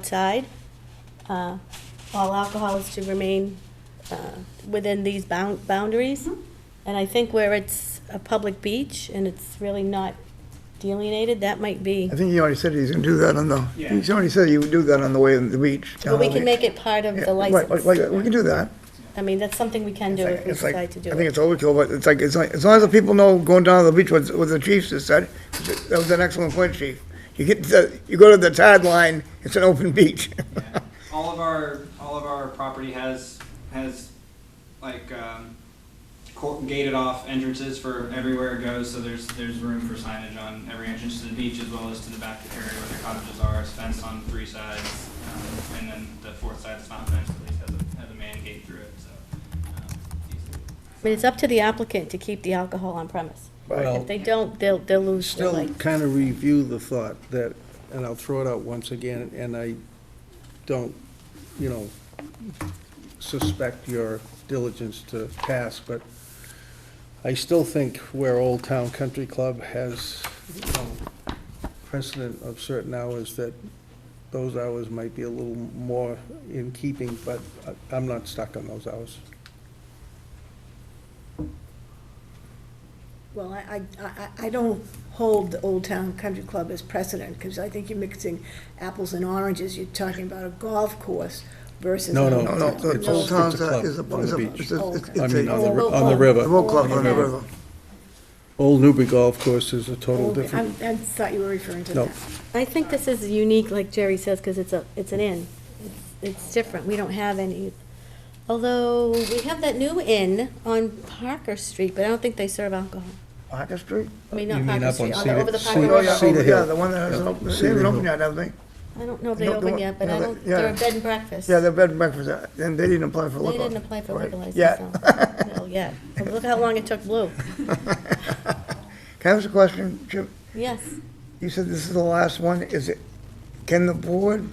outside. Uh, All alcohol is to remain uh, within these bound- boundaries. Mm-hmm. And I think where it's a public beach and it's really not delineated, that might be. I think he already said he's gonna do that on the, Yeah. he's already said he would do that on the way to the beach. But we can make it part of the license. We can do that. I mean, that's something we can do if we It's like- decide to do I think it. it's overkill, but it's like, it's like, as long as the people know going down to the beach, what, what the chief just said, that was an excellent point, chief. You get, the- you go to the tide line, it's an open beach. Yeah. All of our, all of our property has, has like, um, cor- gated off entrances for everywhere it goes, so there's, there's room for signage on every entrance to the beach as well as to the back area where the cottages are, it's fenced on three sides. um, And then the fourth side is not fenced, at least has a, has a man gate through it, so. um, I mean, it's up to the applicant to keep the alcohol on premise. If Well, they don't, they'll, they'll lose their still license. kind of review the thought that, and I'll throw it out once again, and I don't, you know, suspect your diligence to pass, but I still think where Old Town Country Club has, you know, precedent of certain hours, that those hours might be a little more in keeping, but I- I'm not stuck on those hours. Well, I, I- I, I don't hold the Old Town Country Club as precedent, because I think you're mixing apples and oranges. You're talking about a golf course versus. No, No, no. no, the It's- whole it's a town's a, club is a, on is the a, beach. it's a, it's I it's mean, on a, the, ri- on the river. the whole club on the Yeah. river. Old Newbury Golf Course is a total Old- I different, I thought you were referring to No. that. I think this is unique, like Jerry says, because it's a, it's an inn. It's- It's different, we don't have any, although we have that new inn on Parker Street, but I don't think they serve alcohol. Parker Street? I mean, You not mean Parker up on Street, Cedar- although over the Parker Oh, Cedar- Oh, yeah, River. Cedar oh, yeah, Hill. the one that hasn't Yeah. opened, they Cedar haven't Hill. opened yet, I don't think. I don't know if they No, open no, yet, but no, I they- don't, yeah. they're a bed and breakfast. Yeah, they're bed and breakfast, uh, and they didn't apply for They liquor. didn't apply for liquor license, Yeah. no, no, yet. But Look how long it took Blue. Can I ask a question, Jim? Yes, You said this is the last one, is it, can the board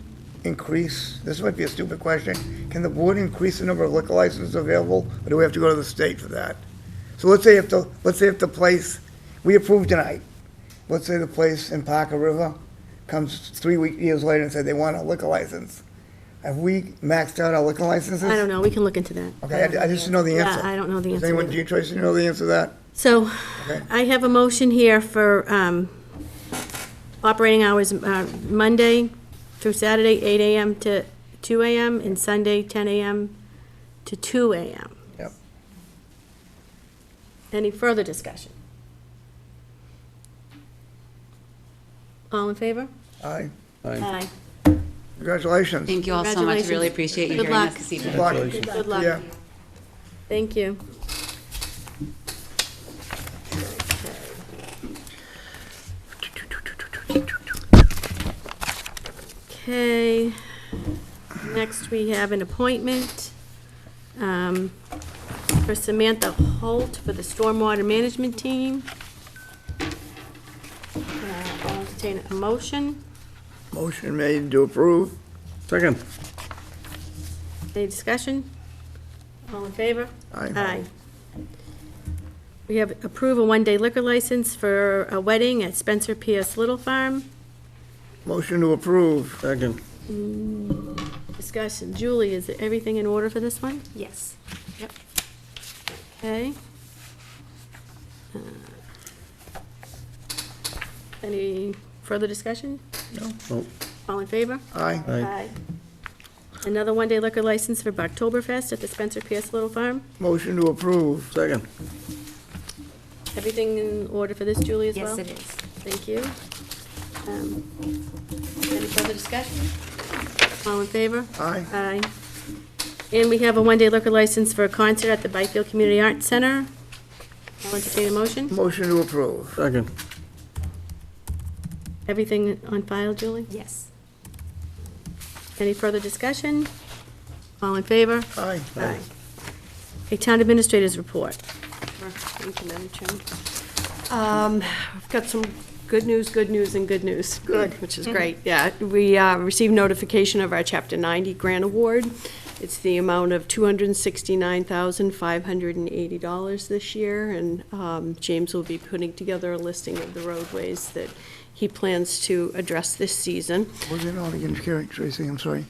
increase, this might be a stupid question, can the board increase the number of liquor licenses available, or do we have to go to the state for that? So let's say if the, let's say if the place, we approve tonight, let's say the place in Parker River comes three week, years later and said they want a liquor license. Have we maxed out our liquor licenses? I don't know, we can look into that. Okay, I- I just don't know the answer. Yeah, I don't know the Does answer. anyone, either. do you, Tracy, know the answer to that? So Okay. I have a motion here for um, operating hours uh, Monday through Saturday, 8 AM to 2 AM, and Sunday, 10 AM to 2 AM. Yep. Any further discussion? All in favor? Aye, I- Aye. congratulations. Thank you all so much. Really Congratulations. appreciate you Good hearing us luck. this evening. Good luck. Congratulations. Good luck. Yeah. Thank you. Okay, next we have an appointment um, for Samantha Holt for the Stormwater Management Team. Uh, I'll entertain a motion. Motion made to approve. Second. Any discussion? All in favor? Aye. We have approve a one-day liquor license for a wedding at Spencer P.S. Little Farm. Motion to approve. Second. Discussion. Julie, is everything in order for this one? Yes. Yep. Okay. Uh, Any further discussion? Nope. All in favor? Aye. Oh. Aye. Another one-day liquor license for Boktoberfest at the Spencer P.S. Little Farm. Motion to approve. Second. Everything in order for this, Julie, as well? Yes, it is. Thank you. Um, Any further discussion? All in favor? Aye. Aye. And we have a one-day liquor license for a concert at the Byfield Community Arts Center. I'll entertain a motion. Motion to approve. Second. Everything on file, Julie? Yes. Any further discussion? All in favor? Aye. Aye. A town administrator's report. Thank you, Madam Chairman. Um, I've got some good news, good news, and good news. Good. Which is great, yeah. We uh, received notification of our Chapter 90 grant award. It's the amount of $269,580 this year, and um, James will be putting together a listing of the roadways that he plans to address this season. Was it on again, Carrie, Tracy, I'm sorry?